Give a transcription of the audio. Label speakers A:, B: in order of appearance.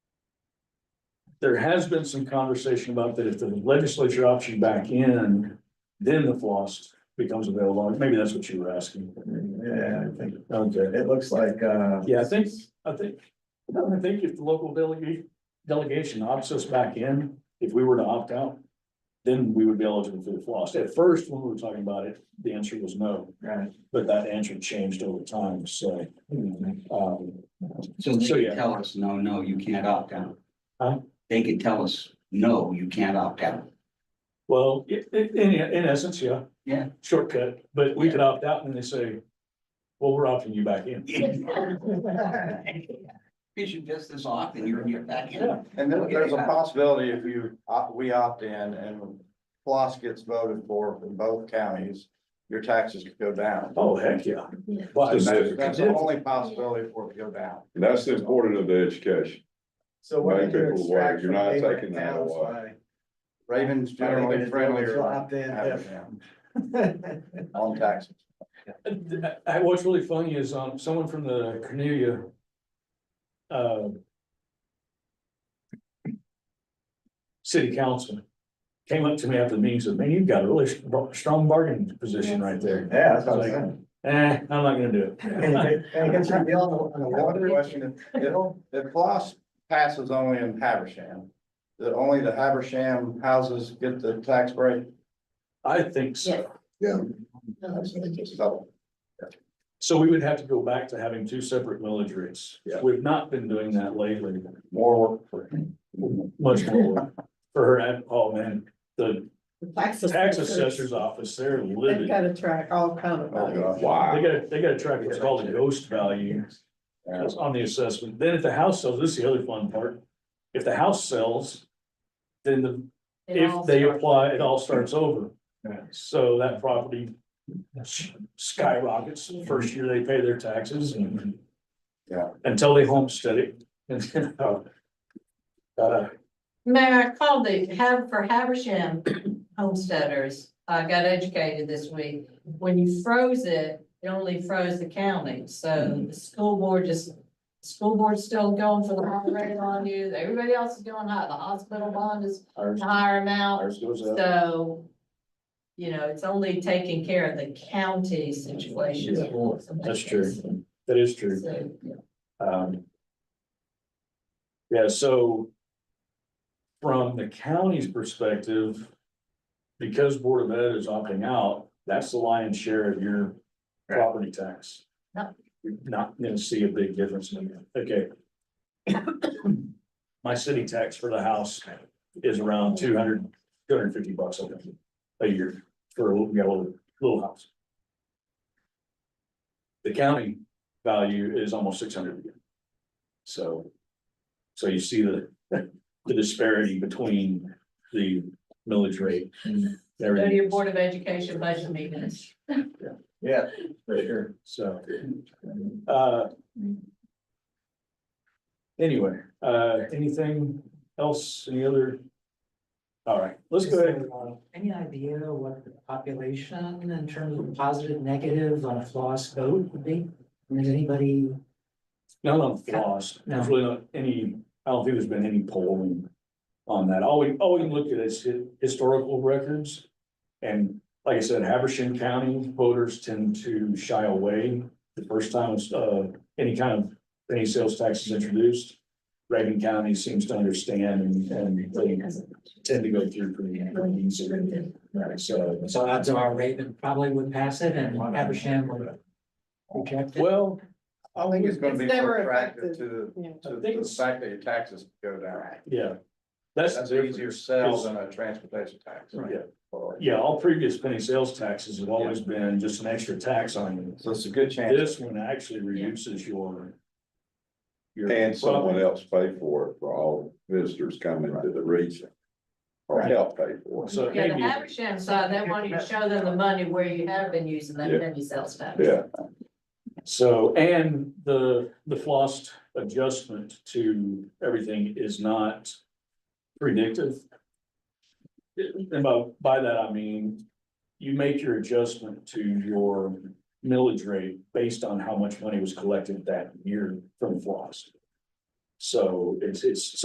A: there has been some conversation about that if the legislature opts you back in, then the floss becomes available. Maybe that's what you were asking.
B: Yeah, I think
A: Okay.
B: it looks like, uh,
A: Yeah, I think, I think, I think if the local delegate, delegation opts us back in, if we were to opt out, then we would be eligible for the floss. At first, when we were talking about it, the answer was no,
B: right.
A: but that answer changed over time, so. um,
C: So they
A: So, yeah.
C: could tell us, no, no, you can't opt out.
A: Huh?
C: They could tell us, no, you can't opt out.
A: Well, i- i- in, in essence, yeah.
C: Yeah.
A: Shortcut, but we could opt out and they say, well, we're opting you back in.
C: Because you pissed this off and you're, you're back in.
D: And then there's a possibility if you, opt- we opt in and floss gets voted for in both counties, your taxes could go down.
A: Oh, heck, yeah.
E: Yeah.
A: But-
D: That's the only possibility for it to go down.
F: That's the importance of the education.
B: So what do
F: Many
B: you
F: people
B: extract
F: were,
B: from
F: you're not
B: neighboring
F: taking that
B: towns
F: away.
B: by?
D: Ravens generally friendlier on taxes.
A: Uh, I- what's really funny is, um, someone from the Cornelia. Uh. City council came up to me after the meeting, and said, man, you've got a really stro- strong bargaining position right there.
B: Yeah, that's what I'm saying.
A: Eh, I'm not gonna do
B: And
A: it.
B: it- and it gets revealed on the
D: I have a
B: water.
D: question. If, if floss passes only in Haversham, that only the Haversham houses get the tax break?
A: I think so.
E: No, it's really just-
D: So
A: So we would have to go back to having two separate millage rates.
F: Yeah.
A: We've not been doing that lately.
D: more work for
A: Much more for her, and- oh man, the
E: the Tax
A: tax assessor's office, they're
E: They've
A: livid.
E: got to track all kind of.
D: Oh, God.
A: They
F: Wow.
A: gotta, they gotta track what's called a ghost value that's on the assessment. Then if the house sells, this is the other fun part. If the house sells, then the,
E: It all
A: if they
E: starts-
A: apply, it all starts over.
B: Yeah.
A: So that property s- skyrockets the first year they pay their taxes and
D: Yeah.
A: until they homestead it and then, uh, uh,
G: Mayor, I called the, have, for Haversham homesteaders, I got educated this week. When you froze it, it only froze the county, so the school board just, school board's still going for the high rate on you, everybody else is going high, the hospital bond is
A: ours,
G: a higher amount,
A: ours goes up.
G: so. You know, it's only taking care of the county situation.
A: That's true. That is true.
G: So, yeah.
A: Um. Yeah, so. From the county's perspective. Because Board of Ed is opting out, that's the lion's share of your property tax.
G: Yep.
A: You're Not gonna see a big difference in that, okay. My city tax for the house is around 200, 250 bucks I think, a year for a little, yeah, a little- little house. The county value is almost six hundred again. So, so you see the, the disparity between the millage rate and
G: Go to your
A: everything,
G: Board of Education budget meetings.
B: Yeah, for sure.
A: so. uh, Anyway, uh, anything else, any other? All right, let's
H: Is
A: go ahead.
H: there, uh, Any idea what the population in terms of positive, negative on a floss vote would be? And is anybody,
A: Not on floss, there's really not any, I don't think there's been any polling on that. All we, all we can look at is hi- historical records. And like I said, Habersham County voters tend to shy away the first time, uh, any kind of, any sales tax is introduced. Reagan County seems to understand and, and they tend to go through pretty, pretty easily. Right, so.
H: so odds are Raven probably would pass it and Abersham would reject it?
A: Well,
D: I think it's gonna be
E: It's never
D: more attractive
E: effective.
D: to
E: Yeah.
D: the, to the fact that your taxes go down.
A: yeah, that's.
D: That's
A: the
D: an
A: difference.
D: easier sell than a transportation tax.
A: Yeah. Yeah, all previous penny sales taxes have always been just an extra tax on you.
D: So it's a good chance.
A: This one actually reduces your. your
F: And someone
A: profit.
F: else pay for it for all visitors coming to the region. Or
D: Right.
F: help pay for it.
A: So
G: Yeah, the uh,
A: maybe,
G: Haversham side, they want you to show them the money where you have been using that
F: Yeah.
G: penny sales tax.
F: Yeah,
A: so, and the, the flossed adjustment to everything is not predictive. And by, by that I mean, you make your adjustment to your millage rate based on how much money was collected that year from floss. So it's, it's